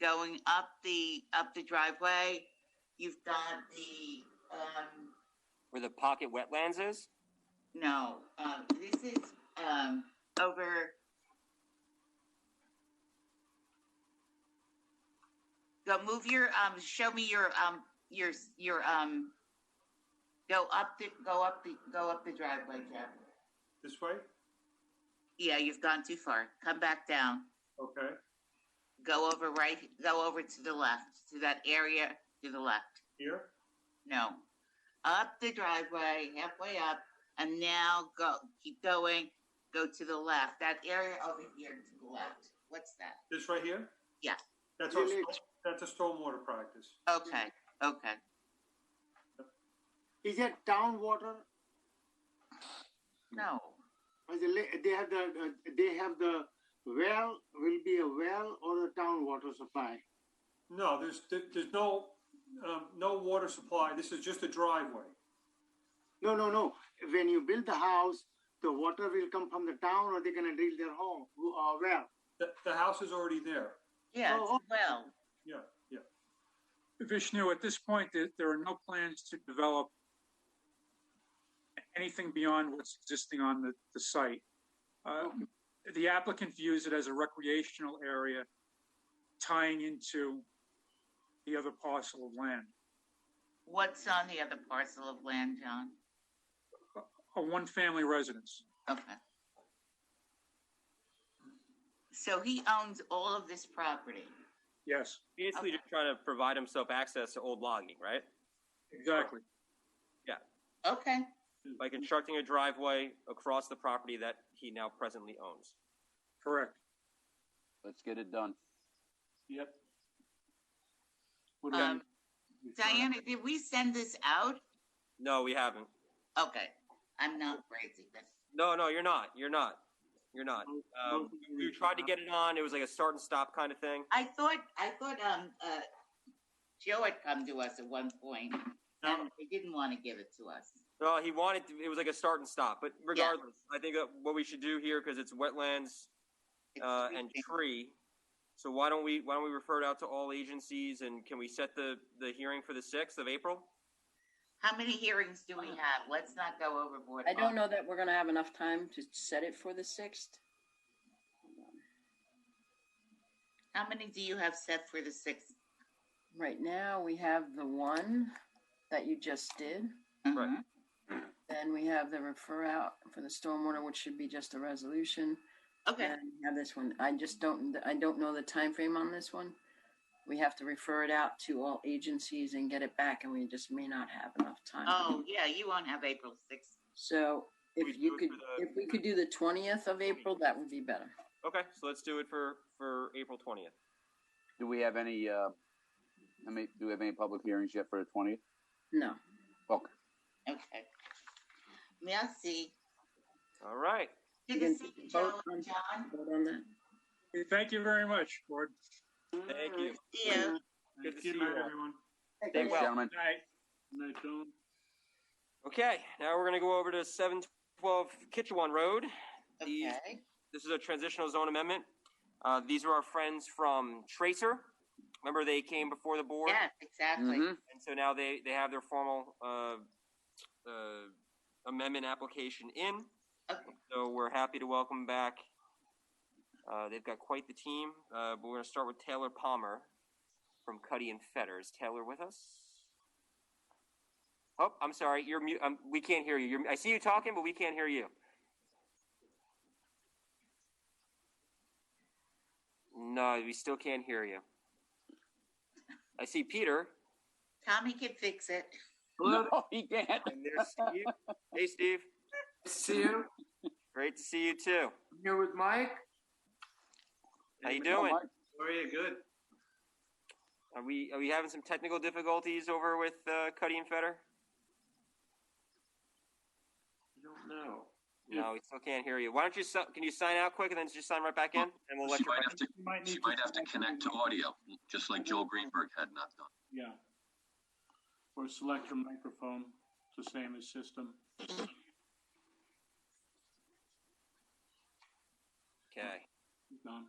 going up the, up the driveway, you've got the, um, where the pocket wetlands is? no, um, this is, um, over. Go move your, um, show me your, um, your, your, um, go up the, go up the, go up the driveway, Jeff. This way? Yeah, you've gone too far. Come back down. Okay. Go over right, go over to the left, to that area to the left. Here? No. Up the driveway, halfway up, and now go, keep going, go to the left, that area over here to the left. What's that? This right here? Yeah. That's our, Yeah, sto- that's a stormwater practice. Okay, okay. Is that town water? No, Or the la- They have the, uh, they have the well, will be a well or a town water supply? No, there's, there- there's no, um, no water supply. This is just a driveway. No, no, no. When you build the house, the water will come from the town or they're gonna drill their home, uh, well. The, the house is already there. yeah, Oh, it's well, Yeah, yeah. Vishnu, at this point, there, there are no plans to develop anything beyond what's existing on the, the site. Uh, The applicant views it as a recreational area tying into the other parcel of land, what's on the other parcel of land, John? a one-family residence. Okay. So he owns all of this property. Yes, Basically just trying to provide himself access to old logging, right? exactly. Okay, By constructing a driveway across the property that he now presently owns. Correct. Let's get it done. Yep. about Um, Diana, did we send this out? No, we haven't. Okay, I'm not crazy, that's No, no, you're not. You're not. You're not. Um, we tried to get it on. It was like a start and stop kind of thing. I thought, I thought, um, uh, Joe had come to us at one point, Now, and they didn't want to give it to us. No, he wanted to, it was like a start and stop. But regardless, I think that what we should do here because it's wetlands It's uh, and creepy. tree. So why don't we why don't we refer it out to all agencies and can we set the the hearing for the sixth of April? How many hearings do we have? Let's not go overboard. I don't know that we're gonna have enough time to set it for the sixth. How many do you have set for the sixth? Right now, we have the one that you just did. Right. Mhm. Then we have the refer out for the stormwater, which should be just a resolution. Okay, And we have this one. I just don't, I don't know the time frame on this one. We have to refer it out to all agencies and get it back, and we just may not have enough time. oh, yeah, you won't have April sixth. So We if do you it could, for the- if we could do the twentieth of April, that would be better. Okay, so let's do it for for April twentieth. Do we have any, uh, I mean, do we have any public hearings yet for the twentieth? Oh, No. Okay. Okay. Merci. All right. Good to see you, Joe and John. Vote on that. Thank you very much, board. Thank you. See you. Good to see good you night, all. everyone. Thanks, well. gentlemen. Good night. Night, John. Okay, now we're gonna go over to seven twelve Kitchewan Road. These- Okay. This is a transitional zone amendment. Uh, these are our friends from Tracer. Remember, they came before the board, Yes, exactly. Mm-hmm. Mhm. and so now they they have their formal uh, uh, amendment application in. Okay. So we're happy to welcome back. Uh, they've got quite the team, uh, but we're gonna start with Taylor Palmer from Cuddy and Fetters. Taylor, with us? Oh, I'm sorry, you're mute. Um, we can't hear you. You're, I see you talking, but we can't hear you. No, we still can't hear you. I see Peter. Tommy can fix it. No, he can't. And there's Steve. hey, Steve. See you, Great to see you too. here with Mike. How you Oh, doing? Mike, How are you? Good. Are we are we having some technical difficulties over with uh, Cuddy and Fetter? I don't know. No, we still can't hear you. Why don't you si- can you sign out quick and then just sign right back in, and we'll let She you. might back- have to, she might have to connect to audio, just like Joel Greenberg had not done. Yeah. Or select your microphone, it's the same as system. Okay. Done.